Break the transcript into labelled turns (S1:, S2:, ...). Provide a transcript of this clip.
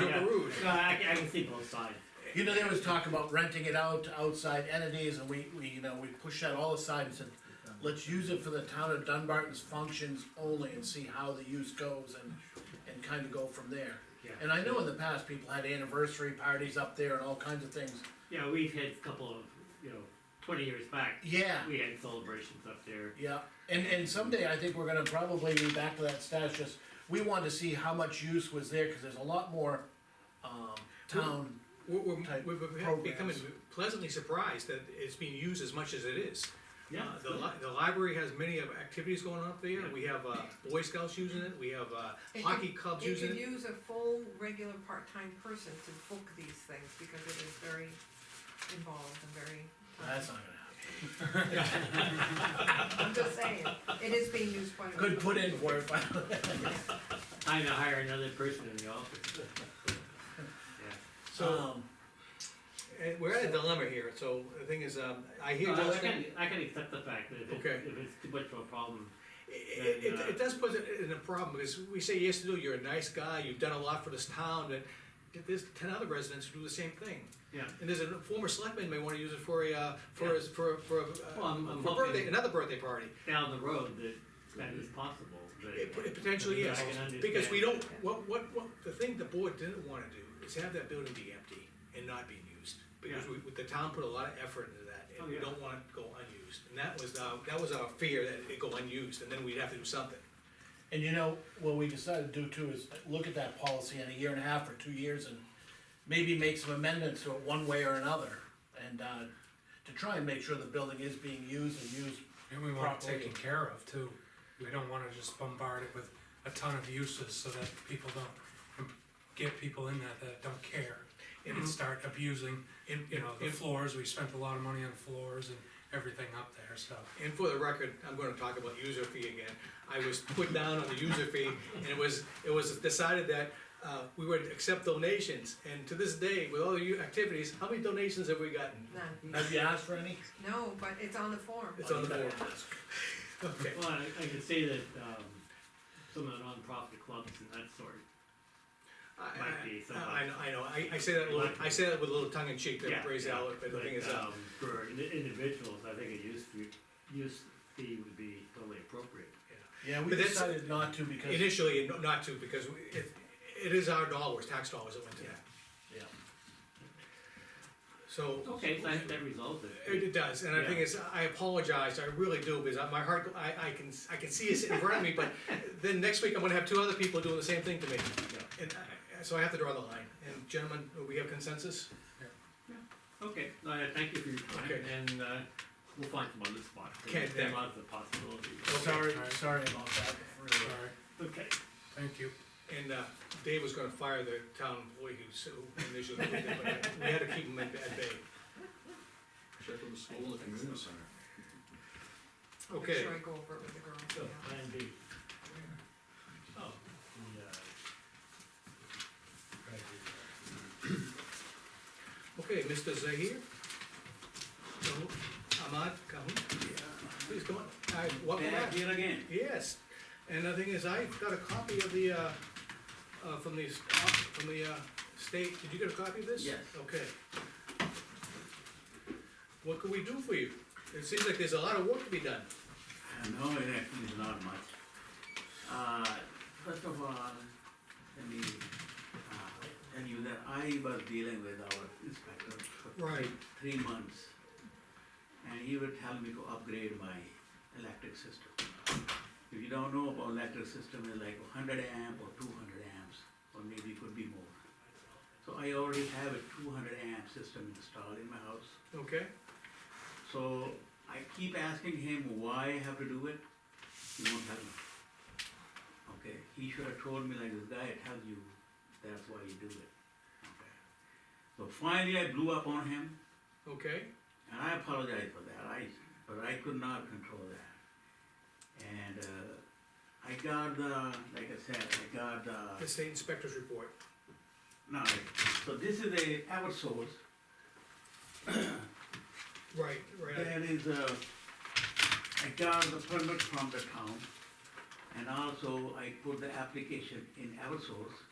S1: No, I, I can see both sides.
S2: You know, there was talk about renting it out to outside entities, and we, we, you know, we pushed that all aside and said, let's use it for the town of Dunbarton's functions only and see how the use goes and, and kinda go from there.
S1: Yeah.
S2: And I know in the past, people had anniversary parties up there and all kinds of things,
S1: Yeah, we've had a couple of, you know, twenty years back,
S2: yeah,
S1: we had celebrations up there.
S2: yeah. And, and someday, I think we're gonna probably be back to that status, just, we wanted to see how much use was there, cause there's a lot more, um, town,
S3: We're, we're,
S2: type
S3: we're- we're
S2: programs.
S3: becoming pleasantly surprised that it's being used as much as it is.
S1: Yeah,
S3: Uh,
S1: it's
S3: The
S1: good.
S3: li- the library has many of activities going on up there,
S1: Yeah.
S3: we have, uh, Boy Scouts using it, we have, uh,
S4: It
S3: hockey
S4: could-
S3: clubs
S4: You
S3: using
S4: could
S3: it.
S4: use a full, regular, part-time person to book these things, because it is very involved and very,
S2: that's not gonna happen.
S4: I'm just saying, it is being used quite a bit.
S2: Good put in for it, but.
S1: Time to hire another person in the office.
S3: So,
S2: Um,
S3: and we're at a dilemma here, so the thing is, um, I hear
S1: Yeah. No, Uh, I
S3: Justin.
S1: can, I can accept the fact that if
S3: Okay.
S1: it's, if it's too much of a problem,
S3: It, it, it does put it in a problem, because we say, yes, no, you're a nice guy, you've done a lot for this town, but there's ten other residents who do the same thing.
S1: Yeah.
S3: And there's a former selectman may wanna use it for a, uh, for, his- for, for, uh,
S1: Well, I'm- I'm
S3: for a birthday,
S1: hoping-
S3: another birthday party.
S1: down the road, that, that is possible, but. uh,
S3: It it potentially is,
S1: I can understand.
S3: because we don't, what, what, what, the thing the board didn't wanna do is have that building be empty and not being used. Because
S1: Yeah.
S3: we, the town put a lot of effort into that,
S1: Oh,
S3: and we
S1: yeah.
S3: don't wanna go unused, and that was, our that was our fear, that it'd go unused, and then we'd have to do something.
S2: And you know, what we decided to do too is look at that policy in a year and a half or two years and maybe make some amendments to it one way or another. And, uh, to try and make sure the building is being used and used,
S5: And we want it
S2: properly.
S5: taken care of too. We don't wanna just bombard it with a ton of uses so that people don't, get people in there that don't care. And start abusing,
S3: And-
S5: you know, the
S3: and-
S5: floors, we spent a lot of money on floors and everything up there, so.
S3: And for the record, I'm gonna talk about user fee again. I was put down on the user fee, and it was, it was decided that, uh, we would accept donations, and to this day, with all the u- activities, how many donations have we gotten?
S4: None,
S2: have you asked for any?
S4: no, but it's on the form.
S3: It's on the board. Okay.
S1: Well, I, I can say that, um, some of the nonprofit clubs and that sort,
S3: I,
S1: Might be
S3: I-
S1: something.
S3: I, know- I know, I, I say that, a little- I say that with a little tongue in cheek,
S1: yeah.
S3: that phrase
S1: yeah,
S3: out, but the thing is, uh,
S1: um, For indi- individuals, I think a use fee, use fee would be totally appropriate.
S2: Yeah, we
S3: But that's-
S2: decided not to because,
S3: initially, no- not to, because we- it, it is our dollars, tax dollars that went to that,
S2: yeah.
S3: so.
S1: Okay, so I think that resolves
S3: It,
S1: it.
S3: it does, and the thing
S1: Yeah.
S3: is, I apologize, I really do, because I- my heart, I, I can, I can see it in front of me, but then next week I'm gonna have two other people doing the same thing to me. And I, so I have to draw the line, and gentlemen, we have consensus?
S1: Okay, uh, thank you for your time,
S3: Okay.
S1: and, uh, we'll find some other spot.
S3: Okay,
S1: There are
S3: thank-
S1: lots of possibilities.
S2: Sorry,
S5: alright.
S2: sorry about that,
S5: All
S2: really.
S5: right,
S1: Okay,
S5: thank you.
S3: And, uh, Dave was gonna fire the town employee who, so, initially, did it, but we had to keep him at, at bay.
S6: Check with the school and the community center.
S4: Make
S3: Okay.
S4: Sure I go over it with the girls,
S3: So,
S4: yeah.
S1: plan B,
S3: Oh,
S1: the, uh,
S3: uh, Okay, Mr. Zahir? Kahoon? Ahmad Kahoon? Please come on, I, welcome back.
S6: Yet again.
S3: Yes, and the thing is, I got a copy of the, uh, uh, from the, s- from the, uh, state, did you get a copy of this?
S6: Yes.
S3: Okay. What can we do for you? It seems like there's a lot of work to be done.
S6: Uh, No, it actually is not much. Uh, First of all, let me uh, tell you that I was dealing with our inspector for
S3: Right.
S6: three months. And he would tell me to upgrade my electric system. If you don't know about electric system, it's like hundred amp or two hundred amps, or maybe it could be more. So I already have a two hundred amp system installed in my house.
S3: Okay,
S6: So I keep asking him why I have to do it, he won't tell me. Okay, he should have told me like this guy tells you, that's why you do it. Okay. So finally I blew up on him
S3: okay,
S6: and I apologize for that, I, but I could not control that. And, uh, I got the, like I said, I got
S3: the state inspector's report.
S6: no, so this is a Eversource.
S3: Right, right,
S6: There is a, I got the permit from the town, and also I put the application in Eversource,